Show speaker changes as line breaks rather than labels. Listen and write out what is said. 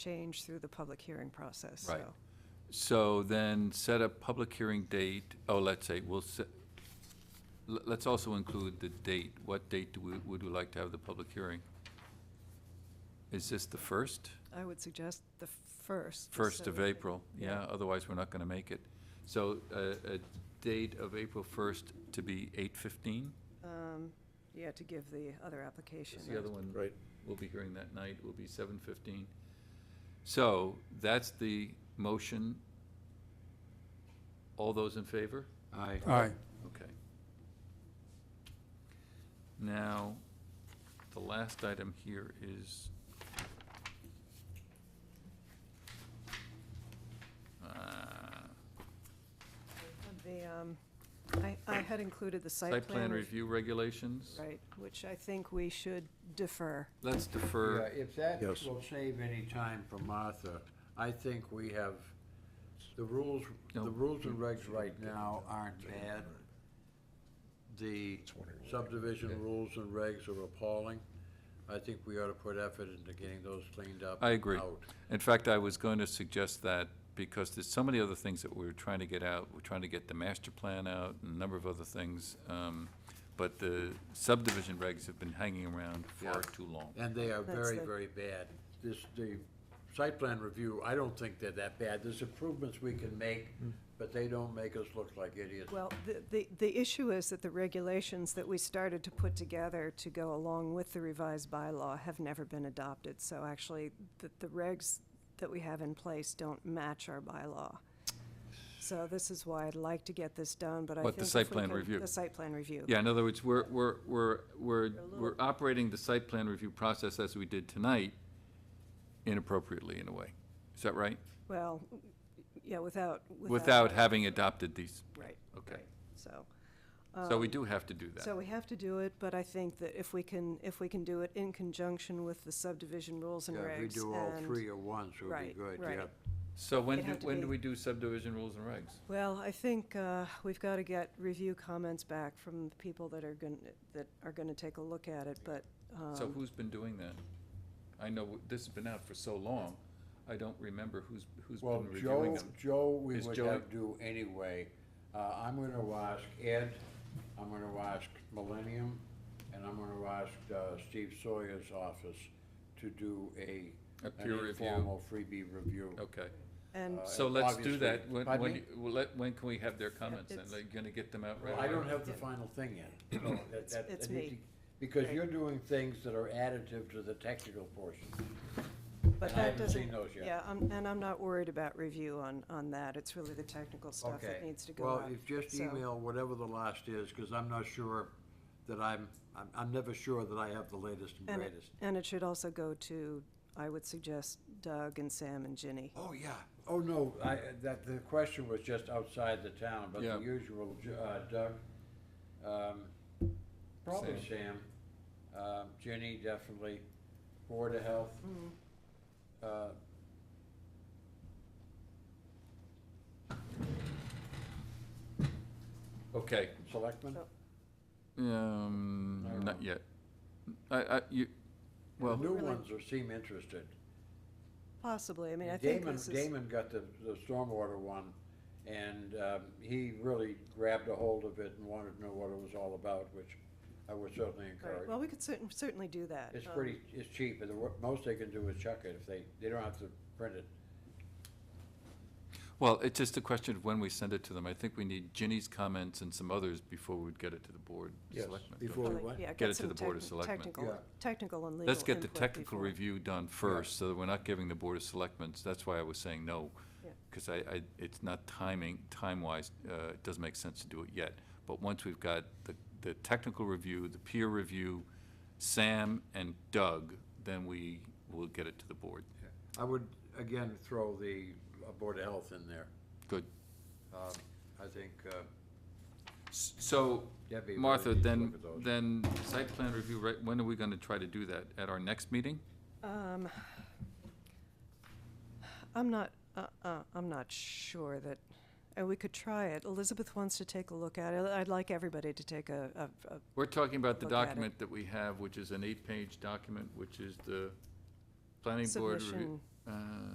change through the public hearing process, so.
Right. So then set a public hearing date, oh, let's say, we'll set, let's also include the date. What date do we, would we like to have the public hearing? Is this the first?
I would suggest the first.
First
so
of
that-
April, yeah, otherwise we're not gonna make it. So, uh, a date of April first to be eight fifteen?
um, Yeah, to give the other application.
Is the other one?
Right.
We'll be hearing that night, will be seven fifteen. So, that's the motion. All those in favor?
Aye.
Aye.
Okay. Now, the last item here is. uh,
The, um, I, I had included the
Site plan review regulations.
Right, which I think we should defer.
Let's
Yeah,
defer,
if that
Yes.
will save any time for Martha, I think we have, the rules,
No.
the rules and regs right now aren't bad. The subdivision rules and regs are appalling. I think we ought to put effort into getting those cleaned up.
I agree.
out.
In fact, I was going to suggest that because there's so many other things that we're trying to get out. We're trying to get the master plan out and a number of other things. um, But the subdivision regs have been hanging around far
Yeah.
too long.
And they are
That's
very,
the-
very bad. This, the site plan review, I don't think they're that bad. There's improvements we can make,
Hmm.
but they don't make us look like idiots.
Well, the, the, the issue is that the regulations that we started to put together to go along with the revised bylaw have never been adopted. So actually, the, the regs that we have in place don't match our bylaw. So this is why I'd like to get this done, but I think.
What, the
if
site
we
plan
can-
review?
The site plan review.
Yeah, in other words, we're, we're, we're, we're, we're operating the site plan review process as we did tonight inappropriately in a way. Is that right?
Well, yeah, without.
Without having adopted these.
Right.
Okay.
right. So. um,
So we do have to do that.
So we have to do it, but I think that if we can, if we can do it in conjunction with the subdivision rules and
Yeah,
regs.
If we do all
and-
three at once, it would be
Right,
good,
right.
yeah.
So when
It'd
do,
have to
when
be-
do we do subdivision rules and regs?
Well, I think uh, we've got to get review comments back from the people that are going, that are going to take a look at it, but, uh,
So who's been doing that? I know this has been out for so long, I don't remember who's, who's
Well,
been reviewing
Joe,
them.
Joe, we
Is
would
Joe-
have do anyway. Uh, I'm gonna ask Ed, I'm gonna ask Millennium, and I'm gonna ask, uh, Steve Sawyer's office to do a,
A
an
peer review.
informal freebie review.
Okay,
and,
Uh,
so let's do that.
obviously-
When,
Pardon
when,
me?
you- well, let- when can we have their comments? And
it's-
they're gonna get them out right
Well, I
away?
don't have the final thing yet. so that- that-
it's
I need
me.
to- Because
Right.
you're doing things that are additive to the technical portion.
but
I
that
haven't
doesn't.
seen those yet.
Yeah, I'm- and I'm not worried about review on, on that. It's really the technical stuff that
Okay.
needs to go
Well,
out.
if just
So-
email whatever the last is, because I'm not sure that I'm, I'm, I'm never sure that I have the latest and
And it-
greatest.
And it should also go to, I would suggest Doug and Sam and Ginny.
Oh, yeah. Oh, no, I, that, the question was just outside the town, but
Yeah.
the usual, Ju- uh, Doug, um, probably Sam, um, Jenny, definitely, Board of Health.
Mm-hmm.
Uh,
Okay.
Selectmen?
So-
Um,
I don't
not
know.
yet. I, I, you,
The
well,
new
Really?
ones are, seem interested.
Possibly, I mean, I think
Damon,
this is.
Damon got the, the stormwater one, and, um, he really grabbed a hold of it and wanted to know what it was all about, which I would certainly
All right,
encourage.
Well, we could cer- certainly do that.
It's
Um,
pretty, it's cheap, and the wor- most they can do is chuck it if they, they don't have to print it.
well, it's just a question of when we send it to them. I think we need Ginny's comments and some others before we'd get it to the board. of
Yes,
Selectmen, don't
before
you?
we
like,
what?
Yeah,
Get
get
it to
some
the Board of
techni-
Selectmen.
Technical,
Yeah.
technical and legal
Let's get the
input
technical
before.
review done first, so that we're not giving the Board of Selectmen, that's why I was saying no.
Yeah.
Because I, I, it's not timing, time-wise, uh, it doesn't make sense to do it yet. But once we've got the, the technical review, the peer review, Sam and Doug, then we will get it to the board.
I would, again, throw the uh, Board of Health in there.
Good.
Um, I think, uh,
S- So,
Debbie really
Martha,
needs to
then,
look at those.
then site plan review, right, when are we gonna try to do that? At our next meeting?
Um, I'm not, uh, uh, I'm not sure that, and we could try it. Elizabeth wants to take a look at it. I'd like everybody to take a, a, a-
We're talking about the
Look at it.
document that we have, which is an eight-page document, which is the planning board review.
submission
Uh,